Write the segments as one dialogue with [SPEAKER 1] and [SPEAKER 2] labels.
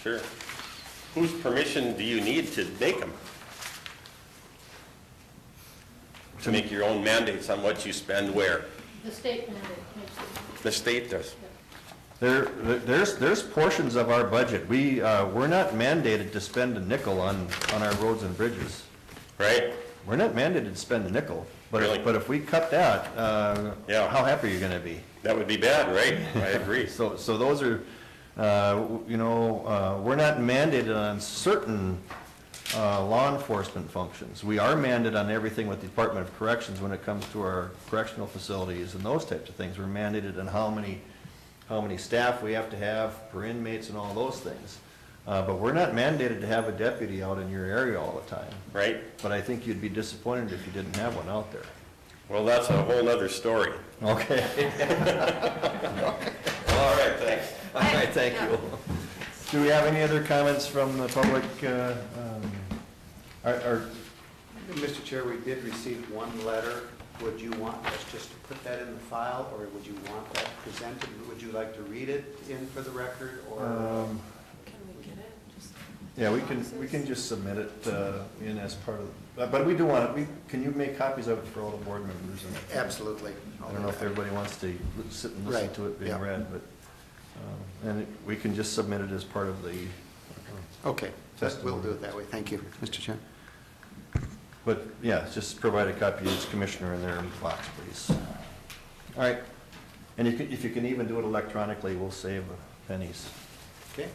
[SPEAKER 1] Sure. Whose permission do you need to make them? To make your own mandates on what you spend where?
[SPEAKER 2] The state mandate makes it.
[SPEAKER 1] The state does.
[SPEAKER 3] There, there's, there's portions of our budget, we, uh, we're not mandated to spend a nickel on, on our roads and bridges.
[SPEAKER 1] Right?
[SPEAKER 3] We're not mandated to spend a nickel, but,
[SPEAKER 1] Really?
[SPEAKER 3] if- but if we cut that, uh,
[SPEAKER 1] Yeah.
[SPEAKER 3] how happy are you gonna be?
[SPEAKER 1] That would be bad, right? I agree.
[SPEAKER 3] So, so those are, uh, w- you know, uh, we're not mandated on certain uh, law enforcement functions. We are mandated on everything with the Department of Corrections when it comes to our correctional facilities and those types of things. We're mandated on how many, how many staff we have to have per inmates and all those things. Uh, But we're not mandated to have a deputy out in your area all the time.
[SPEAKER 1] Right?
[SPEAKER 3] But I think you'd be disappointed if you didn't have one out there.
[SPEAKER 1] Well, that's a whole nother story.
[SPEAKER 3] Okay.
[SPEAKER 1] All right, thanks.
[SPEAKER 3] All right, thank you. Do we have any other comments from the public? uh, um, Are, are-
[SPEAKER 4] Mr. Chair, we did receive one letter. Would you want us just to put that in the file, or would you want that presented? Would you like to read it in for the record, or?
[SPEAKER 3] um,
[SPEAKER 2] Can we get it? Just-
[SPEAKER 3] yeah, we can, we can just submit it uh, in as part of, but- but we do want, it. we, can you make copies of it for all the board members? And
[SPEAKER 4] Absolutely.
[SPEAKER 3] I don't know if everybody wants to li- sit and listen
[SPEAKER 4] Right,
[SPEAKER 3] to it being
[SPEAKER 4] yeah.
[SPEAKER 3] read, but, um, and it- we can just submit it as part of the,
[SPEAKER 4] Okay, that- we'll
[SPEAKER 3] Testimony.
[SPEAKER 4] do it that way. Thank you, Mr. Chair.
[SPEAKER 3] but, yeah, just provide a copy to each commissioner in their box, please. All right, and if you- if you can even do it electronically, we'll save pennies.
[SPEAKER 4] Okay.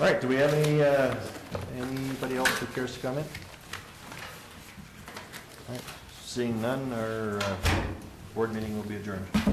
[SPEAKER 3] All right, do we have any, uh, anybody else who cares to comment? All right, Seeing none, our uh, board meeting will be adjourned.